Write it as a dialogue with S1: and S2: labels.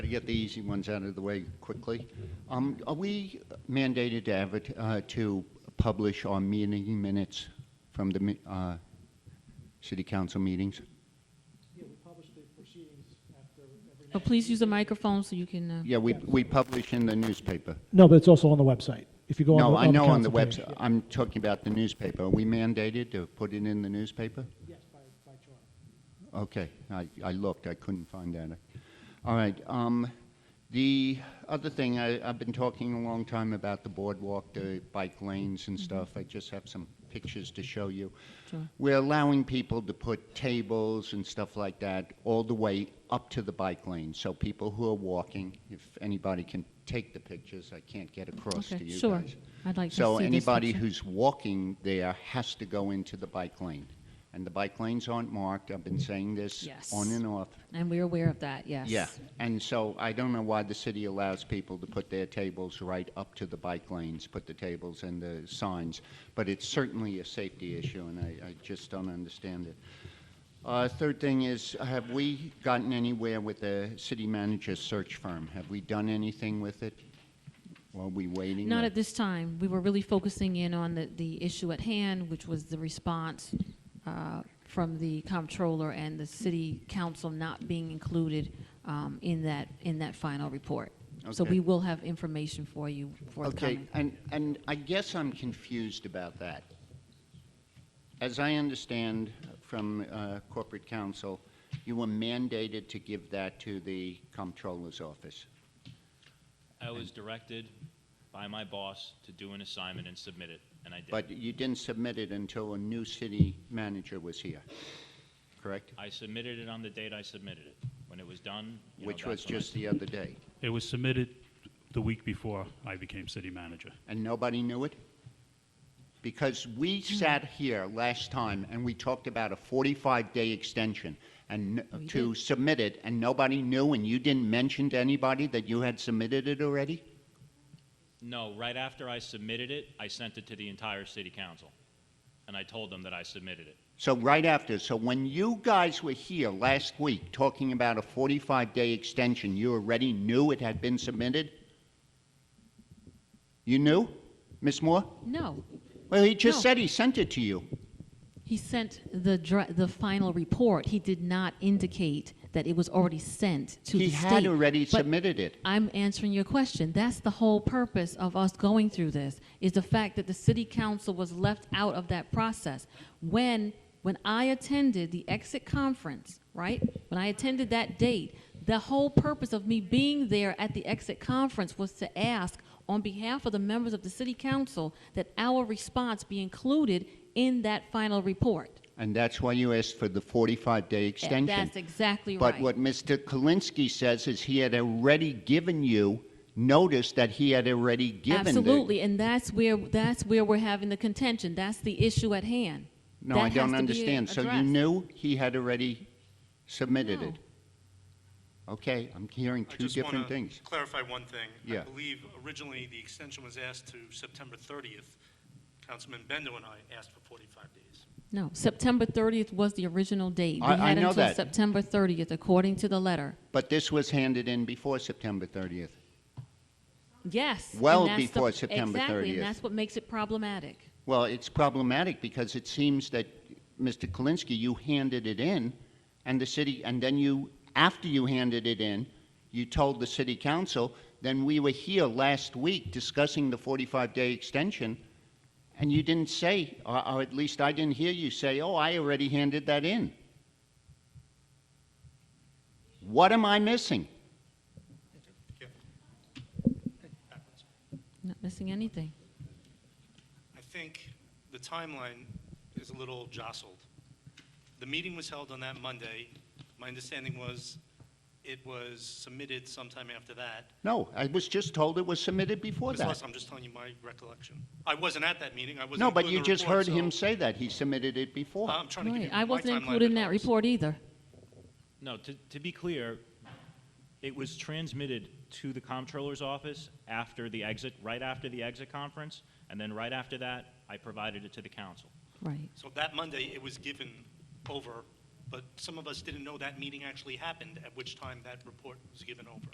S1: get the easy ones out of the way quickly. Um, Are we mandated to advert- uh, to publish our meeting minutes from the mi- uh, city council meetings?
S2: Yeah, we publish the proceedings after every.
S3: But please use the microphone so you can, uh,
S1: Yeah, we we publish in the newspaper.
S2: No, but it's also on the website. If you go on the.
S1: No, I know on the
S2: council
S1: website,
S2: page.
S1: I'm talking about the newspaper. Are we mandated to put it in the newspaper?
S2: Yes, by, by charter.
S1: Okay, I, I looked, I couldn't find that. All right, um, the other thing, I, I've been talking a long time about the boardwalk, the bike lanes and stuff. I just have some pictures to show you.
S3: Sure.
S1: We're allowing people to put tables and stuff like that all the way up to the bike lane. So people who are walking, if anybody can take the pictures, I can't get across to
S3: okay,
S1: you
S3: sure.
S1: guys.
S3: I'd like to see this
S1: So anybody
S3: picture.
S1: who's walking there has to go into the bike lane. And the bike lanes aren't marked, I've been saying this
S3: Mm. Yes.
S1: on and off.
S3: And we're aware of that, yes.
S1: Yeah, and so I don't know why the city allows people to put their tables right up to the bike lanes, put the tables and the signs, but it's certainly a safety issue, and I, I just don't understand it. Uh, third thing is, have we gotten anywhere with the city manager search firm? Have we done anything with it? Are we waiting?
S3: Not
S1: or-
S3: at this time. We were really focusing in on the, the issue at hand, which was the response uh, from the comptroller and the city council not being included um, in that, in that final report. So
S1: Okay.
S3: we will have information for you
S1: Okay,
S3: forthcoming.
S1: and, and I guess I'm confused about that. As I understand from uh, corporate counsel, you were mandated to give that to the comptroller's office.
S4: I was directed by my boss to do an assignment and submit it, and I did.
S1: But you didn't submit it until a new city manager was here, correct?
S4: I submitted it on the date I submitted it. When it was done, you know,
S1: Which was
S4: that's when I-
S1: just the other day.
S5: It was submitted the week before I became city manager.
S1: And nobody knew it? Because
S3: Mm.
S1: we sat here last time and we talked about a 45-day extension and n-
S3: We
S1: to submit it, and nobody knew, and you didn't mention to anybody that you had submitted it already?
S4: No, right after I submitted it, I sent it to the entire city council, and I told them that I submitted it.
S1: So right after, so when you guys were here last week talking about a 45-day extension, you already knew it had been submitted? You knew, Ms. Moore?
S3: No,
S1: Well, he just
S3: No.
S1: said he sent it to you.
S3: he sent the, dra- the final report. He did not indicate that it was already sent to the
S1: He
S3: state.
S1: had already
S3: But
S1: submitted it.
S3: I'm answering your question. That's the whole purpose of us going through this, is the fact that the city council was left out of that process. When, when I attended the exit conference, right? When I attended that date, the whole purpose of me being there at the exit conference was to ask on behalf of the members of the city council that our response be included in that final report.
S1: And that's why you asked for the 45-day extension.
S3: That's exactly right.
S1: But what Mr. Kalinsky says is he had already given you notice that he had already given. the-
S3: Absolutely, and that's where, that's where we're having the contention. That's the issue at hand.
S1: No, I
S3: That has
S1: don't
S3: to be
S1: understand. So you
S3: addressed.
S1: knew he had already submitted
S3: No.
S1: it? Okay, I'm hearing
S6: I
S1: two
S6: just
S1: different
S6: wanna
S1: things.
S6: Clarify one thing.
S1: Yeah.
S6: I believe originally the extension was asked to September 30th. Councilman Bendo and I asked for 45 days.
S3: No, September 30th was the original date.
S1: I- I know
S3: We had until
S1: that.
S3: September 30th, according to the letter.
S1: But this was handed in before September 30th.
S3: Yes. and
S1: Well
S3: that's the-
S1: before September
S3: Exactly,
S1: 30th.
S3: and that's what makes it problematic.
S1: Well, it's problematic because it seems that, Mr. Kalinsky, you handed it in, and the city, and then you, after you handed it in, you told the city council, then we were here last week discussing the 45-day extension, and you didn't say, or, or at least I didn't hear you say, oh, I already handed that in. What am I missing?
S6: Backwards.
S3: Not missing anything.
S6: I think the timeline is a little jostled. The meeting was held on that Monday. My understanding was it was submitted sometime after that.
S1: No, I was just told it was submitted before
S6: Ms.
S1: that.
S6: Lust, I'm just telling you my recollection. I wasn't at that meeting. I wasn't.
S1: No, but
S6: included
S1: you
S6: in the
S1: just
S6: report,
S1: heard him
S6: so- Um,
S1: say that, he submitted it before.
S6: I'm trying to give you
S3: Right,
S6: my timeline.
S3: I wasn't included in
S6: but
S3: that
S6: I'll just-
S3: report either.
S4: No, to, to be clear, it was transmitted to the comptroller's office after the exit, right after the exit conference, and then right after that, I provided it to the council.
S3: Right.
S6: So that Monday, it was given over, but some of us didn't know that meeting actually happened, at which time that report was given over.